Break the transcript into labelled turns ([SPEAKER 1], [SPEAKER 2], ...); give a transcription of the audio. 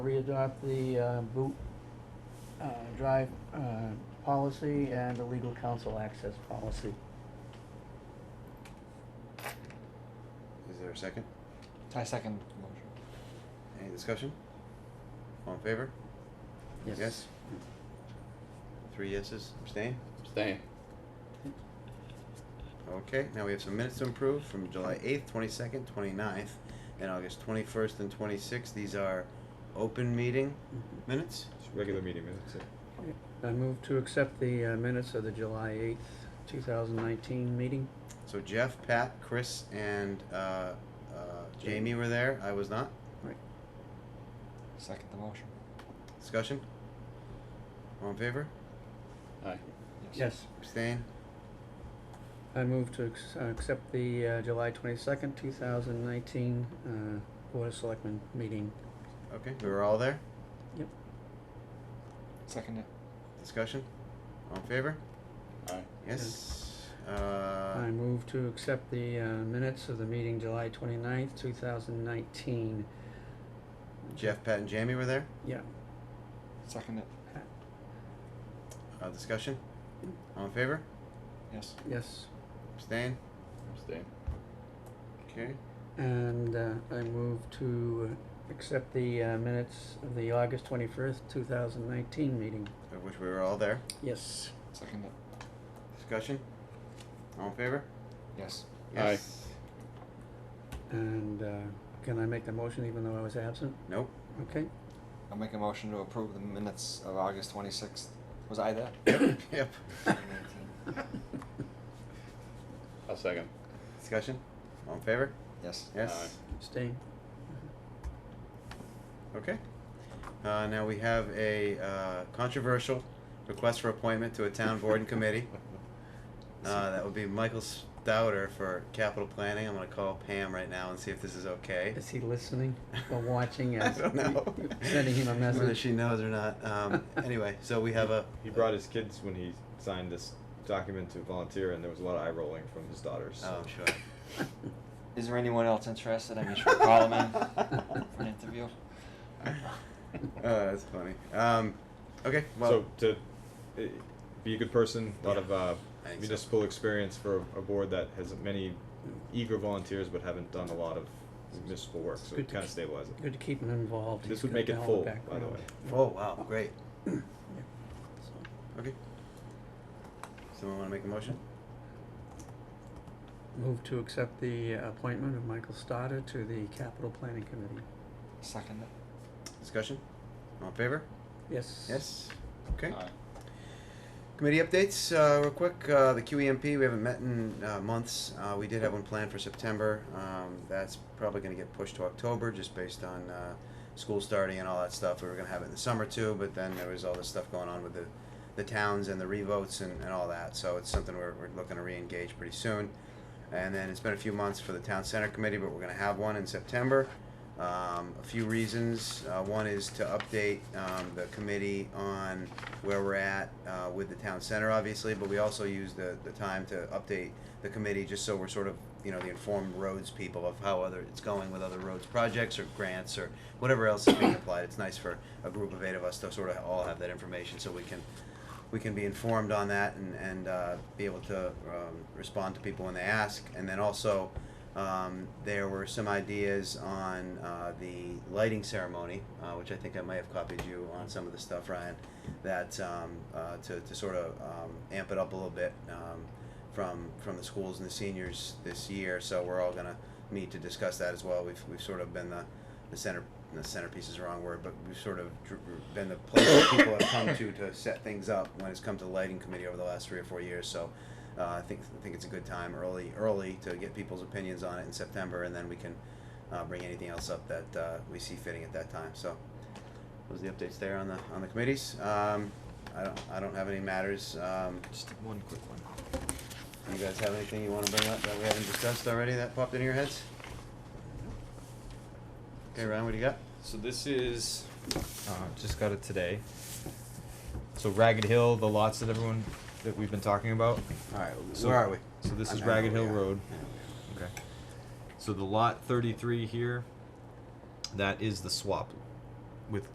[SPEAKER 1] re-adopt the uh, boot uh, drive uh, policy and the legal counsel access policy.
[SPEAKER 2] Is there a second?
[SPEAKER 3] I second the motion.
[SPEAKER 2] Any discussion? All in favor? Yes? Three yeses, abstain?
[SPEAKER 4] Abstain.
[SPEAKER 2] Okay, now we have some minutes to improve from July eighth, twenty-second, twenty-ninth, and August twenty-first and twenty-sixth. These are open meeting
[SPEAKER 1] Mhm.
[SPEAKER 2] minutes.
[SPEAKER 5] It's regular meeting minutes. yeah.
[SPEAKER 1] I move to accept the uh, minutes of the July eighth, two thousand nineteen meeting.
[SPEAKER 2] So Jeff, Pat, Chris, and, uh, uh, Jamie were there. I was not.
[SPEAKER 3] Second the motion.
[SPEAKER 2] Discussion? All in favor?
[SPEAKER 4] Aye.
[SPEAKER 1] Yes.
[SPEAKER 2] Abstain?
[SPEAKER 1] I move to ex- uh, accept the uh, July twenty-second, two thousand nineteen uh, Board of Selectmen meeting.
[SPEAKER 2] Okay, we were all there.
[SPEAKER 3] Second it.
[SPEAKER 2] Discussion? All in favor?
[SPEAKER 4] Aye.
[SPEAKER 2] Yes?
[SPEAKER 1] I
[SPEAKER 2] Uh,
[SPEAKER 1] move to accept the uh, minutes of the meeting July twenty-ninth, two thousand nineteen.
[SPEAKER 2] Jeff, Pat, and Jamie were there.
[SPEAKER 1] Yeah,
[SPEAKER 3] Second it.
[SPEAKER 2] Uh, discussion? All in favor?
[SPEAKER 3] Yes.
[SPEAKER 1] yes.
[SPEAKER 2] Abstain?
[SPEAKER 4] Abstain.
[SPEAKER 2] Okay.
[SPEAKER 1] And uh, I move to accept the uh, minutes of the August twenty-first, two thousand nineteen meeting.
[SPEAKER 2] Of which we were all there.
[SPEAKER 1] Yes.
[SPEAKER 3] Second it.
[SPEAKER 2] Discussion? All in favor?
[SPEAKER 3] Yes.
[SPEAKER 4] Aye.
[SPEAKER 2] Yes.
[SPEAKER 1] And uh, can I make the motion even though I was absent?
[SPEAKER 2] Nope.
[SPEAKER 1] Okay,
[SPEAKER 3] I'll make a motion to approve the minutes of August twenty-sixth. Was I there?
[SPEAKER 2] Yep.
[SPEAKER 4] I'll second.
[SPEAKER 2] Discussion? All in favor?
[SPEAKER 3] Yes.
[SPEAKER 2] Yes?
[SPEAKER 1] staying.
[SPEAKER 2] Okay. Uh, now we have a, uh, controversial request for appointment to a town board and committee. Uh, that would be Michael Stouter for capital planning. I'm gonna call Pam right now and see if this is okay.
[SPEAKER 1] Is he listening or watching us?
[SPEAKER 2] I don't know.
[SPEAKER 1] Sending him a
[SPEAKER 2] Whether
[SPEAKER 1] message.
[SPEAKER 2] she knows or not. Um, anyway, so we have a.
[SPEAKER 5] He brought his kids when he signed this document to volunteer, and there was a lot of eye rolling from his daughters. so-
[SPEAKER 2] Oh, sure.
[SPEAKER 3] Is there anyone else interested? I mean, should we call them in for an interview?
[SPEAKER 2] Oh, that's funny. Um, okay, well,
[SPEAKER 5] so to uh, be a good person, a lot
[SPEAKER 2] Yeah,
[SPEAKER 5] of uh,
[SPEAKER 2] I think so.
[SPEAKER 5] municipal experience for a board that has many eager volunteers but haven't done a lot of municipal work, so
[SPEAKER 1] Good
[SPEAKER 5] it
[SPEAKER 1] to
[SPEAKER 5] kind of
[SPEAKER 1] keep-
[SPEAKER 5] stabilizes it.
[SPEAKER 1] Good to keep him involved.
[SPEAKER 5] This
[SPEAKER 1] He's
[SPEAKER 5] would
[SPEAKER 1] got
[SPEAKER 5] make it
[SPEAKER 1] all the
[SPEAKER 5] full, by the
[SPEAKER 1] background.
[SPEAKER 5] way.
[SPEAKER 2] oh, wow, great.
[SPEAKER 1] So,
[SPEAKER 2] Okay. Someone want to make a motion?
[SPEAKER 1] Move to accept the uh, appointment of Michael Stoddard to the Capital Planning Committee.
[SPEAKER 3] Second it.
[SPEAKER 2] Discussion? All in favor?
[SPEAKER 1] Yes.
[SPEAKER 2] Yes? Okay.
[SPEAKER 4] Aye.
[SPEAKER 2] Committee updates, uh, real quick, uh, the QEMP, we haven't met in, uh, months, uh, we did have one planned for September, um, that's probably gonna get pushed to October, just based on, uh, school starting and all that stuff, we were gonna have it in the summer too, but then there was all this stuff going on with the, the towns and the revotes and, and all that, so it's something we're, we're looking to re-engage pretty soon. And then it's been a few months for the town center committee, but we're gonna have one in September, um, a few reasons. Uh, one is to update um, the committee on where we're at uh, with the town center, obviously, but we also use the, the time to update the committee just so we're sort of, you know, the informed roads people of how other it's going with other roads projects or grants or whatever else is being applied. It's nice for a group of eight of us to sort of all have that information so we can we can be informed on that and, and uh, be able to um, respond to people when they ask. And then also, um, there were some ideas on uh, the lighting ceremony, uh, which I think I might have copied you on some of the stuff, Ryan, that um, uh, to, to sort of um, amp it up a little bit um, from from the schools and the seniors this year. So we're all gonna need to discuss that as well. We've, we've sort of been the the center the centerpiece is the wrong word, but we've sort of dr- been the place that people have come to to set things up when it's come to the lighting committee over the last three or four years. So uh, I think I think it's a good time early early to get people's opinions on it in September, and then we can uh, bring anything else up that uh, we see fitting at that time. So those are the updates there on the on the committees. Um, I don't I don't have any matters. Um,
[SPEAKER 3] Just one quick one.
[SPEAKER 2] you guys have anything you want to bring up that we haven't discussed already that popped into your heads? Okay, Ryan, what do you got?
[SPEAKER 5] So this is, uh, just got it today. So Ragged Hill, the lots that everyone, that we've been talking about.
[SPEAKER 2] All right,
[SPEAKER 5] So-
[SPEAKER 2] where are we?
[SPEAKER 5] so this
[SPEAKER 2] I-
[SPEAKER 5] is
[SPEAKER 2] I know
[SPEAKER 5] Ragged
[SPEAKER 2] where
[SPEAKER 5] Hill
[SPEAKER 2] we are.
[SPEAKER 5] Road. Okay. So the lot thirty-three here, that is the swap